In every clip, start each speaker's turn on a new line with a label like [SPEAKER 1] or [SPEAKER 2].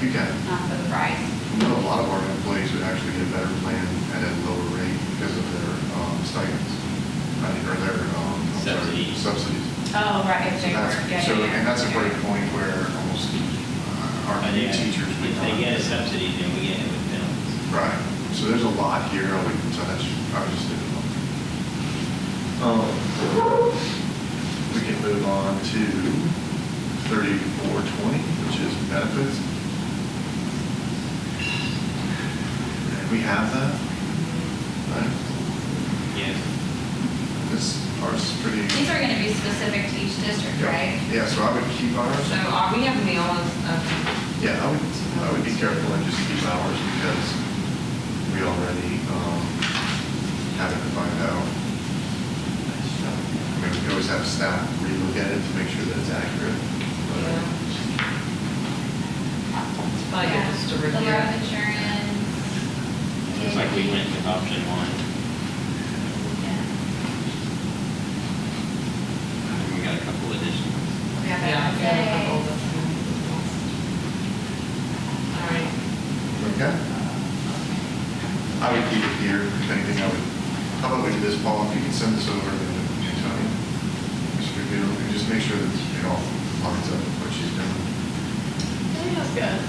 [SPEAKER 1] You can.
[SPEAKER 2] not for the price.
[SPEAKER 1] You know, a lot of our employees would actually get a better plan at a lower rate because of their um, stipends, I mean, or their, um, I'm sorry,
[SPEAKER 3] Subsidies.
[SPEAKER 1] Subsidies.
[SPEAKER 2] Oh, right, if
[SPEAKER 1] So
[SPEAKER 2] they were,
[SPEAKER 1] that's-
[SPEAKER 2] yeah,
[SPEAKER 1] So,
[SPEAKER 2] yeah, yeah.
[SPEAKER 1] and that's a
[SPEAKER 2] Yeah.
[SPEAKER 1] great point where almost uh, our
[SPEAKER 3] But yeah,
[SPEAKER 1] teachers would
[SPEAKER 3] If
[SPEAKER 1] not.
[SPEAKER 3] they get a subsidy, then we get it with penalties.
[SPEAKER 1] Right, so there's a lot here, I wouldn't touch, I would just leave it alone. Um, We can move on to thirty-four twenty, which is benefits. And we have that, right?
[SPEAKER 3] Yes.
[SPEAKER 1] This part's pretty.
[SPEAKER 2] These are gonna be specific to each district, right?
[SPEAKER 1] Yeah, so I would keep ours.
[SPEAKER 4] So are we have meals um, of,
[SPEAKER 1] Yeah, I would, I would be careful and just keep hours because we already, um, have it defined out. I mean, we can always have staff relook at it to make sure that it's accurate. but-
[SPEAKER 4] Yeah. it's probably
[SPEAKER 2] Yeah.
[SPEAKER 4] just to
[SPEAKER 2] The
[SPEAKER 4] review.
[SPEAKER 2] life insurance.
[SPEAKER 3] It's like we went with option one.
[SPEAKER 2] Yeah,
[SPEAKER 3] We got a couple additions.
[SPEAKER 2] we have
[SPEAKER 4] Yeah,
[SPEAKER 2] that
[SPEAKER 4] we have a
[SPEAKER 2] today.
[SPEAKER 4] couple of them. All right.
[SPEAKER 1] Okay? I would keep it here, if anything, I would, how about we do this, Paul, if you can send this over to Tony? Mr. Gill, and just make sure that it all lines up with what she's doing.
[SPEAKER 5] Can I ask a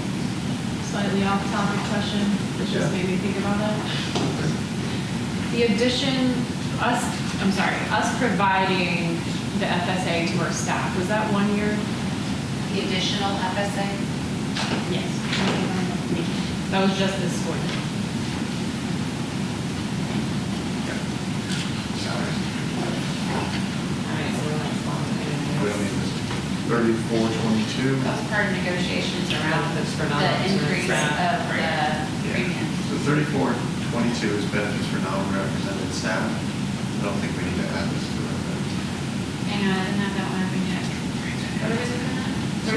[SPEAKER 5] slightly off-topic question, which just
[SPEAKER 1] Yeah.
[SPEAKER 5] made me think about it? The addition, us, I'm sorry, us providing the FSA to our staff, was that one year?
[SPEAKER 2] The additional
[SPEAKER 1] Mm-hmm.
[SPEAKER 2] FSA,
[SPEAKER 5] Yes. That was just this school year.
[SPEAKER 1] Yeah. Salaries.
[SPEAKER 4] All right, so we're like, long,
[SPEAKER 1] We don't need this. Thirty-four twenty-two.
[SPEAKER 2] that was part of negotiations around
[SPEAKER 4] Benefits for
[SPEAKER 2] the
[SPEAKER 4] non-residents.
[SPEAKER 2] increase of
[SPEAKER 4] Right.
[SPEAKER 2] the premiums.
[SPEAKER 1] So thirty-four twenty-two is benefits for non-represented staff. I don't think we need to add this to our.
[SPEAKER 2] Hang on, I didn't have that one up in yet. What was it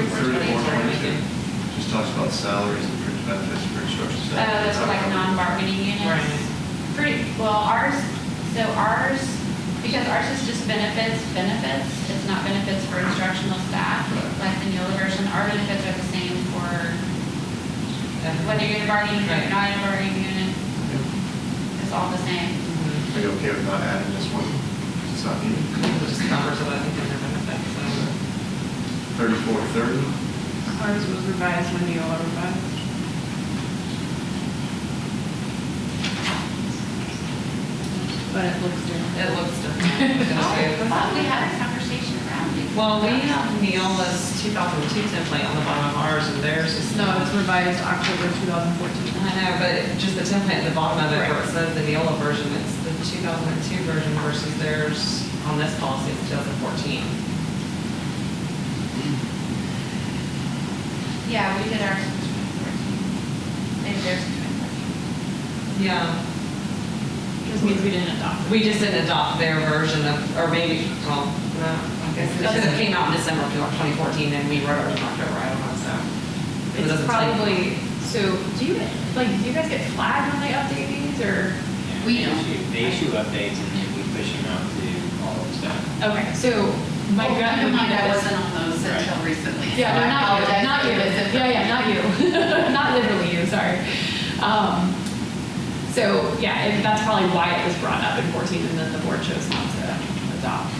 [SPEAKER 1] So
[SPEAKER 2] for that?
[SPEAKER 1] 3422 Just talks about salaries and fringe benefits for instruction
[SPEAKER 2] Oh,
[SPEAKER 1] staff.
[SPEAKER 2] that's for like non-bargaining units?
[SPEAKER 4] Right.
[SPEAKER 2] Pretty, well, ours, so ours, because ours is just benefits, benefits, it's not benefits for instructional staff,
[SPEAKER 1] Right.
[SPEAKER 2] like the newer version, our benefits are the same for whether you're in a bargaining unit or
[SPEAKER 4] Right.
[SPEAKER 2] not in a bargaining unit,
[SPEAKER 1] Are
[SPEAKER 2] it's all the same.
[SPEAKER 5] Mm-hmm.
[SPEAKER 4] Mhm.
[SPEAKER 1] you okay with not adding this one? It's not needed.
[SPEAKER 4] It just covers what I think they're gonna benefit, so.
[SPEAKER 1] Thirty-four thirty,
[SPEAKER 5] Ours was revised when you all revised. But it looks different.
[SPEAKER 4] It looks different.
[SPEAKER 2] Oh, I thought we had a conversation around it. Um,
[SPEAKER 4] Well, we have Neola's 2002 template on the bottom of ours, and theirs is
[SPEAKER 5] No,
[SPEAKER 4] not.
[SPEAKER 5] it's revised October 2014.
[SPEAKER 4] I know, but just the template at the bottom of it, where it says the Neola version, it's the 2002 version versus theirs on this policy, it's 2014.
[SPEAKER 2] Yeah, we did ours in 2014. Maybe theirs in 2014.
[SPEAKER 4] Yeah.
[SPEAKER 5] Just means we didn't adopt it.
[SPEAKER 4] We just didn't adopt their version of, or maybe, well, no, I guess, because it came out in December of 2014, and we wrote ours in October, I don't know, so. it
[SPEAKER 5] It's
[SPEAKER 4] doesn't say.
[SPEAKER 5] probably, so do you, like, do you guys get flagged when they update these or?
[SPEAKER 3] Yeah,
[SPEAKER 2] We
[SPEAKER 3] they
[SPEAKER 2] don't.
[SPEAKER 3] issue- They issue updates and then we push them out to all of staff.
[SPEAKER 5] Okay, so my
[SPEAKER 6] Well,
[SPEAKER 5] gut
[SPEAKER 6] keep in
[SPEAKER 5] would be
[SPEAKER 6] mind, I
[SPEAKER 5] that.
[SPEAKER 6] wasn't on those until recently.
[SPEAKER 5] Yeah,
[SPEAKER 6] so
[SPEAKER 5] no,
[SPEAKER 6] I
[SPEAKER 5] not you,
[SPEAKER 6] apologize
[SPEAKER 5] not
[SPEAKER 6] for
[SPEAKER 5] you.
[SPEAKER 6] this
[SPEAKER 5] Yeah, yeah, not you. Not literally you, sorry. Um, So, yeah, it- that's probably why it was brought up in 14 and then the board chose not to adopt.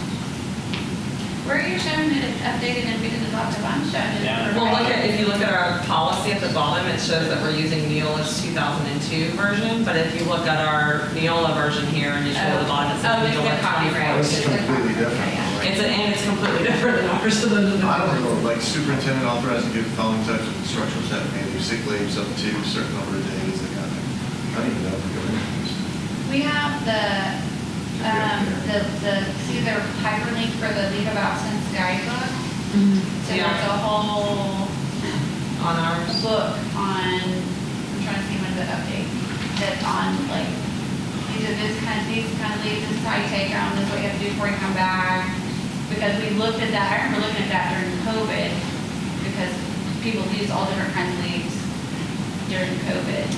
[SPEAKER 2] Where are you showing it updated and we didn't adopt it, I'm showing it.
[SPEAKER 3] Yeah.
[SPEAKER 4] Well, look at, if you look at our policy at the bottom, it shows that we're using Neola's 2002 version, but if you look at our Neola version here and you show at the bottom,
[SPEAKER 2] Oh,
[SPEAKER 4] it says
[SPEAKER 2] it's the
[SPEAKER 4] Neola
[SPEAKER 2] copyright.
[SPEAKER 4] 24.
[SPEAKER 1] this is completely different. right?
[SPEAKER 4] It's, a- and it's completely different than ours, so then.
[SPEAKER 1] I don't know, like superintendent authorized to give the following types of instructions that may be sick leaves up to a certain number of days, that kind of thing. I don't even know if we're going to this.
[SPEAKER 2] We have the, um, the, the, see the hyperlink for the League of Absence guidebook?
[SPEAKER 5] Mm-hmm.
[SPEAKER 2] So there's
[SPEAKER 4] Yeah.
[SPEAKER 2] a whole
[SPEAKER 4] On ours.
[SPEAKER 2] book on, I'm trying to see when the update, that's on like, these are this kind of, these kind of leaves, this is how you take them, this is what you have to do before you come back. Because we looked at that, I remember looking at that during COVID, because people used all different kinds of leaves during COVID.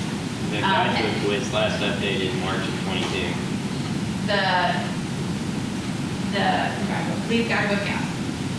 [SPEAKER 3] The
[SPEAKER 2] Um,
[SPEAKER 3] guidebook was last updated March of '22.
[SPEAKER 2] oh the, the leaf guidebook, yeah.